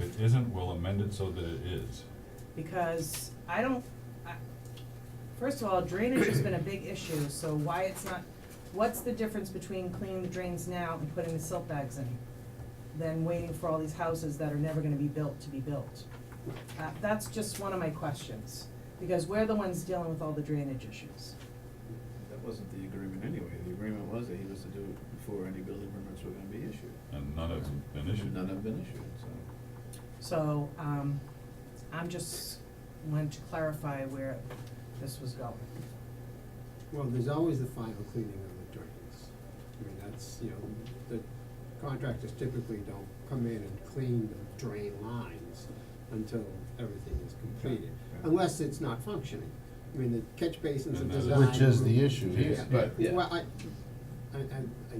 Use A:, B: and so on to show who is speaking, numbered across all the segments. A: it isn't, we'll amend it so that it is.
B: because I don't, I, first of all, drainage has been a big issue, so why it's not, what's the difference between cleaning the drains now and putting the silt bags in? Than waiting for all these houses that are never gonna be built to be built? Uh, that's just one of my questions, because we're the ones dealing with all the drainage issues.
C: That wasn't the agreement anyway. The agreement was that he was to do it before any building permits were gonna be issued.
A: And none of them been issued.
C: None have been issued, so.
B: So, um, I'm just, wanted to clarify where this was going.
D: Well, there's always the final cleaning of the drains. I mean, that's, you know, the contractors typically don't come in and clean the drain lines until everything is completed,
C: Yeah.
D: unless it's not functioning. I mean, the catch basins are
A: And that's-
D: designed.
E: Which is the issue here,
D: Yeah.
E: but-
C: Yeah.
D: Well, I, I, I, I,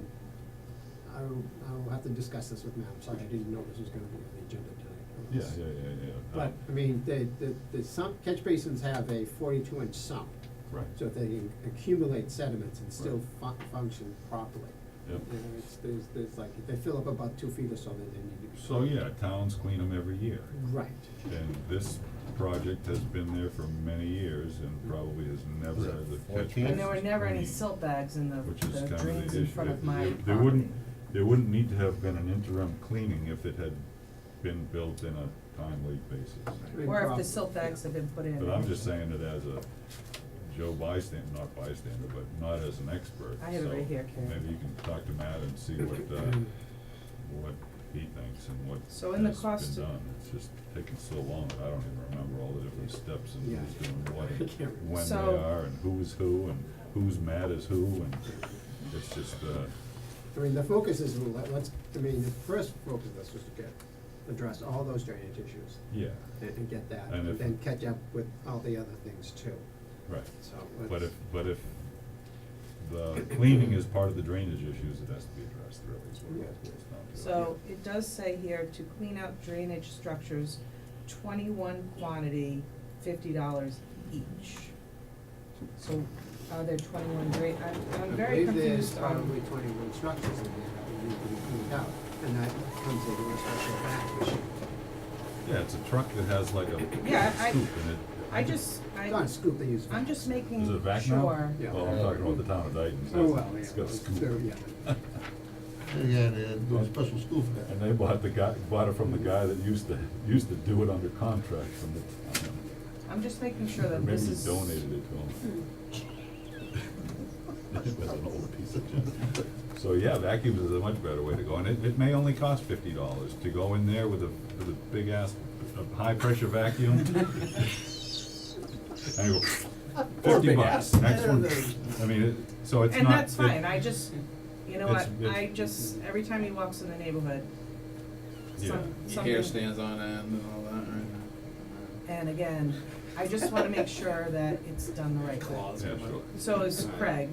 D: I'll, I'll have to discuss this with Matt, I'm sorry, I didn't know this was gonna be on the agenda tonight.
A: Yeah, yeah, yeah, yeah.
D: But, I mean, the, the, the sump, catch basins have a forty-two inch sump.
A: Right.
D: So they can accumulate sediments and still fun- function properly.
A: Yep.
D: You know, it's, there's, there's like, if they fill up about two feet or so, then they need to be.
A: So, yeah, towns clean them every year.
D: Right,
A: And this project has been there for many years and probably has never
E: Was it
A: had the catch
E: 14?
B: And there were never any
A: basin
B: silt bags in the,
A: cleaned, Which is
B: the
A: kind of
B: drains
A: the
B: in
A: issue.
B: front of
A: There-
B: my property.
A: There wouldn't, there wouldn't need to have been an interim cleaning if it had been built in a timely basis.
D: Right.
B: Or if the
D: Problem.
B: silt bags have been put in.
A: But I'm just saying it as a Joe bystander, not bystander, but not as an expert,
B: I have it
A: so
B: right here, Karen.
A: Maybe you can talk to Matt and see what, uh, what he thinks and what has
B: So
A: been
B: in the
A: done.
B: cost of-
A: It's just taking so long, that I don't even remember all the different steps and
D: Yeah.
A: who's doing what,
D: I can't
A: and
D: remember.
A: when they
B: So-
A: are, and who's who, and who's mad as who, and it's just, uh,
D: I mean, the focus is, well, let- let's, I mean, the first focus of this was to get, address all those drainage issues
A: yeah,
D: and, and get that,
A: And
D: and
A: if-
D: then catch up with all the other things too,
A: right.
D: so.
A: But if,
D: let's-
A: but if the cleaning is part of the drainage issues, it has to be addressed really, is what it boils down to.
B: So it does say here to clean out drainage structures, twenty-one quantity, fifty dollars each. So are there twenty-one drain, I'm, I'm very
D: I believe
B: confused
D: there's um,
B: on.
D: probably twenty-one structures in there that would need to be cleaned out, and that comes into a special back issue.
A: Yeah, it's a truck that has like a scoop in
B: Yeah, I-
A: it.
B: I just,
D: It's not a
B: I,
D: scoop they use.
B: I'm just making
A: Is it
B: sure.
A: a vac now?
D: Yeah.
A: Well, I'm talking about the town of Dayton,
D: Oh, well,
A: so
D: yeah.
A: it's got a scoop.
D: There, yeah.
E: Yeah, they had to go to special school for
A: And
E: that.
A: they bought the guy, bought it from the guy that used to, used to do it under contract from the town.
B: I'm just making sure
A: Or
B: that
A: maybe
B: this
A: he
B: is.
A: donated it to him.
B: Hmm.
A: It was an old piece of junk. So, yeah, vacuums is a much better way to go, and it, it may only cost fifty dollars to go in there with a, with a big ass, a high-pressure vacuum. And you go,
D: Or a
A: fifty
D: big
A: bucks,
D: ass.
A: next one, I mean, it, so it's not.
B: And that's
A: it-
B: fine, I just, you know what,
A: It's- it's-
B: I just, every time he walks in the neighborhood,
A: Yeah.
B: some, something.
C: Your hair stands on end and all that, right?
B: And again, I just wanna make sure that it's done the right way.
A: Yeah, sure.
B: So is Craig,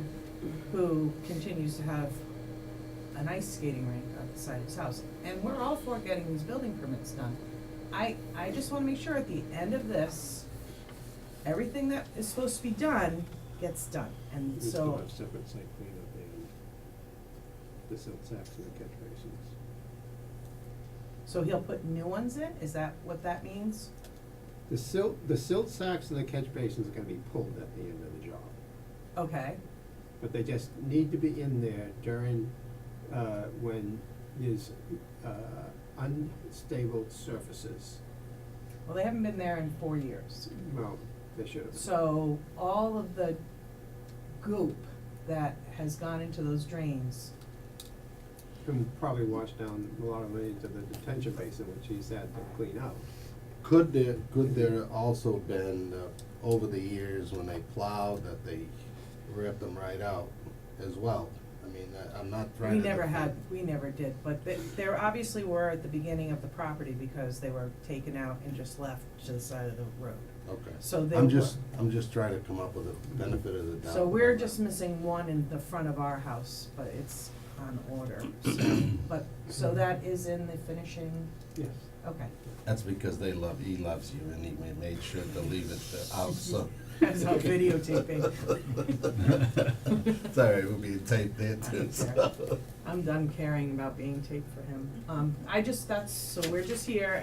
B: who continues to have an ice skating rink outside his house. And we're all for getting these building permits done. I, I just wanna make sure at the end of this, everything that is supposed to be done gets done. And
D: Needs to
B: so,
D: have separate site cleanup and the silt sacks and the catch basins.
B: so he'll put new ones in? Is that what that means?
D: The silt, the silt sacks and the catch basins are gonna be pulled at the end of the job,
B: Okay,
D: but they just need to be in there during, uh, when there's, uh, unstable surfaces.
B: well, they haven't been there in four years.
D: Well, they should have.
B: So all of the goop that has gone into those drains,
D: Can probably wash down a lot of money to the detention basin, which he's had to clean out.
E: Could there, could there also been, uh, over the years when they plowed, that they ripped them right out as well? I mean, I, I'm not trying
B: we
E: to.
B: never had,
E: defend-
B: we never did, but th- there obviously were at the beginning of the property because they were taken out and just left to the side of the road.
E: Okay.
B: So they
E: I'm
B: were-
E: just, I'm just trying to come up with a benefit of the doubt.
B: So we're just missing one in the front of our house, but it's on order, so, but, so that is in the finishing,
D: Yes.
B: okay.
E: That's because they love, he loves you, and he ma- made sure to leave it uh, out, so.
B: That's not videotaping.
E: It's all right, we'll be taped there
B: I
E: too,
B: don't
E: so.
B: care. I'm done caring about being taped for him. Um, I just, that's, so we're just here